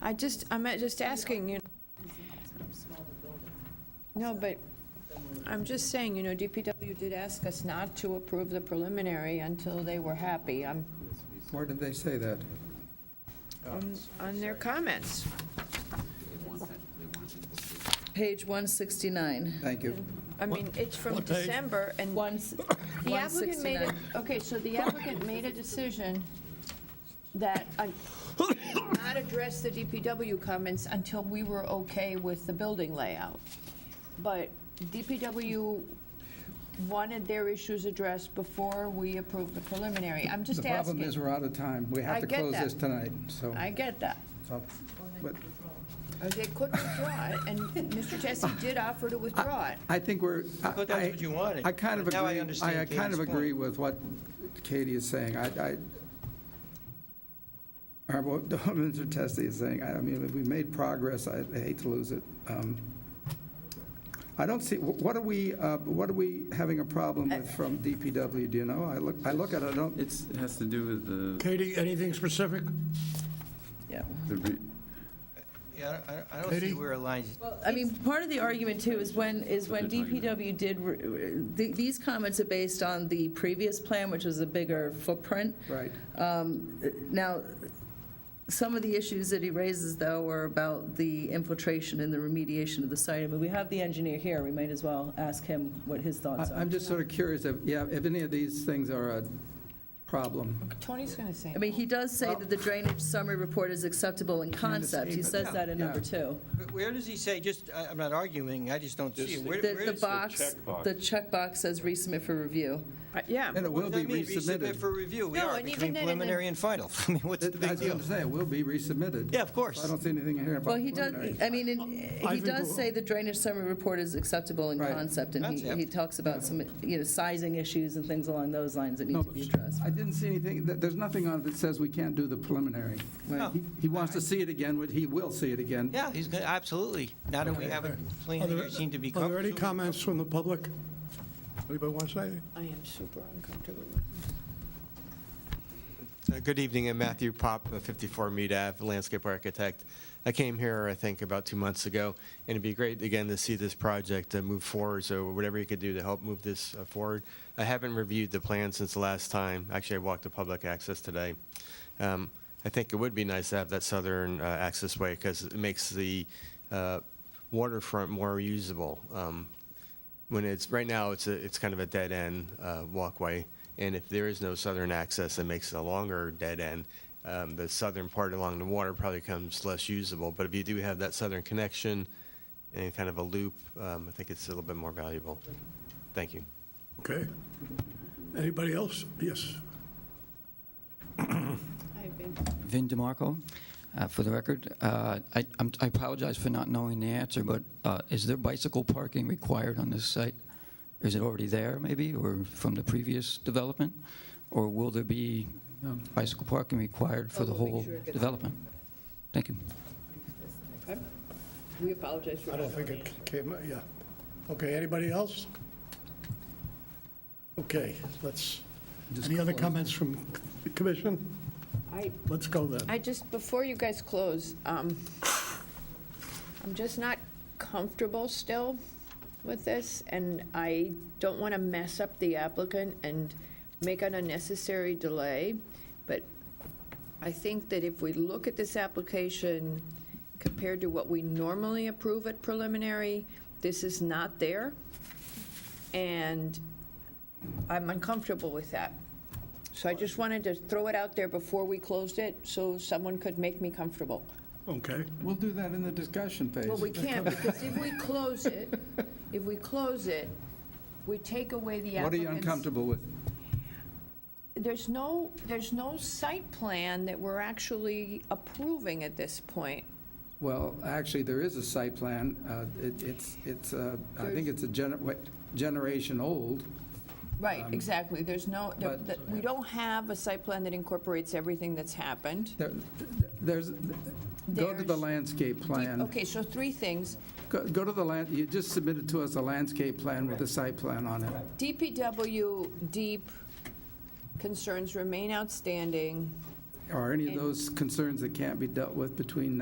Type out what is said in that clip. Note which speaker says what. Speaker 1: I just, I'm just asking, you, no, but I'm just saying, you know, DPW did ask us not to approve the preliminary until they were happy. I'm,
Speaker 2: Where did they say that?
Speaker 3: Oh,
Speaker 1: on, on their comments.
Speaker 4: Page 169.
Speaker 2: Thank you.
Speaker 1: I mean, it's from
Speaker 3: What page?
Speaker 1: December, and
Speaker 4: Once,
Speaker 1: the applicant made, a
Speaker 4: 169.
Speaker 1: okay, so the applicant made a decision that uh, not address the DPW comments until we were okay with the building layout. But DPW wanted their issues addressed before we approved the preliminary. I'm
Speaker 2: The
Speaker 1: just
Speaker 2: problem is
Speaker 1: asking.
Speaker 2: we're out of time. We
Speaker 1: I
Speaker 2: have to
Speaker 1: get
Speaker 2: close
Speaker 1: that.
Speaker 2: this tonight, so.
Speaker 1: I get that.
Speaker 2: so, but
Speaker 1: Uh, They could withdraw it, and Mr. Tessie did offer to withdraw it.
Speaker 2: I think we're. I-
Speaker 5: thought that's
Speaker 2: I-
Speaker 5: what you wanted,
Speaker 2: I kind of
Speaker 5: but now I
Speaker 2: agree,
Speaker 5: understand
Speaker 2: I I kind
Speaker 5: Katie's
Speaker 2: of agree
Speaker 5: point.
Speaker 2: with what Katie is saying. I, I, or what Mr. Testi is saying. I I mean, we made progress. I I hate to lose it. Um, I don't see, wh- what are we, uh, what are we having a problem
Speaker 1: Uh,
Speaker 2: with from DPW? Do you know? I look, I look at it, I don't,
Speaker 6: It's, it has to do with the-
Speaker 3: Katie, anything specific?
Speaker 4: yeah.
Speaker 6: the, re-
Speaker 5: Yeah, I don't- I don't see
Speaker 3: Katie?
Speaker 5: where it lines.
Speaker 4: I mean, part of the argument too is when, is when
Speaker 6: That's a good
Speaker 4: DPW did, re- re- th- these comments are based on the previous plan, which was a bigger footprint.
Speaker 2: right.
Speaker 4: Now, some of the issues that he raises, though, are about the infiltration and the remediation of the site. I mean, we have the engineer here, we might as well ask him what his thoughts
Speaker 2: I-
Speaker 4: are.
Speaker 2: I'm just sort of curious if, yeah, if any of these things are a problem.
Speaker 1: Tony's going to say.
Speaker 4: I mean, he does say that the drainage summary report is acceptable in concept, he says that in number two.
Speaker 5: Where- Where does he say, just, I- I'm not arguing, I just don't see it. Where-
Speaker 4: The,
Speaker 5: where
Speaker 4: the
Speaker 5: is-
Speaker 4: box, the checkbox says resubmit for review.
Speaker 1: Uh, Yeah.
Speaker 2: And it
Speaker 5: What
Speaker 2: will
Speaker 5: does
Speaker 2: be
Speaker 5: that mean? Resubmit
Speaker 2: resubmitted.
Speaker 5: for review. We
Speaker 1: No,
Speaker 5: are
Speaker 1: and even
Speaker 5: between
Speaker 1: then in the-
Speaker 5: preliminary and final. I mean, what's
Speaker 2: I
Speaker 5: the big
Speaker 2: was going
Speaker 5: deal?
Speaker 2: to say, it will be resubmitted.
Speaker 5: Yeah, of course.
Speaker 2: I don't see anything here about.
Speaker 4: Well, he does,
Speaker 2: preliminary.
Speaker 4: I mean, in-
Speaker 3: I
Speaker 4: he
Speaker 3: think
Speaker 4: does
Speaker 3: we'll-
Speaker 4: say the drainage summary report is acceptable in
Speaker 2: Right.
Speaker 4: concept, and he,
Speaker 5: Concept.
Speaker 4: he talks about some, you know, sizing issues and things along those lines that
Speaker 2: No,
Speaker 4: need to be addressed.
Speaker 2: I didn't see anything, th- there's nothing on it that says we can't do the preliminary.
Speaker 5: No.
Speaker 2: He- He wants to see it again, which he will see it again.
Speaker 5: Yeah, he's, gonna- absolutely. Now that we have a plan,
Speaker 3: Are
Speaker 5: that
Speaker 3: there-
Speaker 5: you seem to be
Speaker 3: Are there any
Speaker 5: comfortable.
Speaker 3: comments from the public? Anybody want to say anything?
Speaker 1: I am super uncomfortable.
Speaker 7: Uh, Good evening, I'm Matthew Pop, uh, 54 Mead Ave, landscape architect. I came here, I think, about two months ago, and it'd be great, again, to see this project uh, move forward, so whatever you could do to help move this uh, forward. I haven't reviewed the plan since the last time, actually, I walked the public access today. Um, I think it would be nice to have that southern uh, access way, because it makes the uh, waterfront more usable. Um, when it's, right now, it's a, it's kind of a dead-end uh, walkway, and if there is no southern access, it makes it a longer dead end. Um, The southern part along the water probably becomes less usable, but if you do have that southern connection and kind of a loop, um, I think it's a little bit more valuable. Thank you.
Speaker 3: Okay. Anybody else? Yes.
Speaker 8: Vin DeMarco. Uh, For the record, uh, I I'm- I apologize for not knowing the answer, but uh, is there bicycle parking required on this site? Is it already there, maybe, or from the previous development? Or will there be um, bicycle parking required for the whole development? Thank you.
Speaker 1: We apologize for
Speaker 3: I don't think it came, yeah. Okay, anybody else? Okay, let's, any other comments from the commission?
Speaker 1: I,
Speaker 3: Let's go then.
Speaker 1: I just, before you guys close, um, I'm just not comfortable still with this, and I don't want to mess up the applicant and make an unnecessary delay, but I think that if we look at this application compared to what we normally approve at preliminary, this is not there, and I'm uncomfortable with that. So I just wanted to throw it out there before we closed it, so someone could make me comfortable.
Speaker 3: Okay.
Speaker 2: We'll do that in the discussion phase.
Speaker 1: Well, we can't, because if we close it, if we close it, we take away the
Speaker 2: What are
Speaker 1: applicant's...
Speaker 2: you uncomfortable with?
Speaker 1: There's no, there's no site plan that we're actually approving at this point.
Speaker 2: Well, actually, there is a site plan. Uh, it- It's, it's, uh, I think it's a gener- what, generation old.
Speaker 1: Right, exactly. There's no, there-
Speaker 2: Um, but-
Speaker 1: that- we don't have a site plan that incorporates everything that's happened.
Speaker 2: There- There's, go to the
Speaker 1: There's-
Speaker 2: landscape plan.
Speaker 1: Okay, so three things.
Speaker 2: Go go to the land, you just submitted to us a landscape plan with a site plan on it.
Speaker 1: DPW deep concerns remain outstanding.
Speaker 2: Are any of
Speaker 1: And-
Speaker 2: those concerns that can't be dealt with between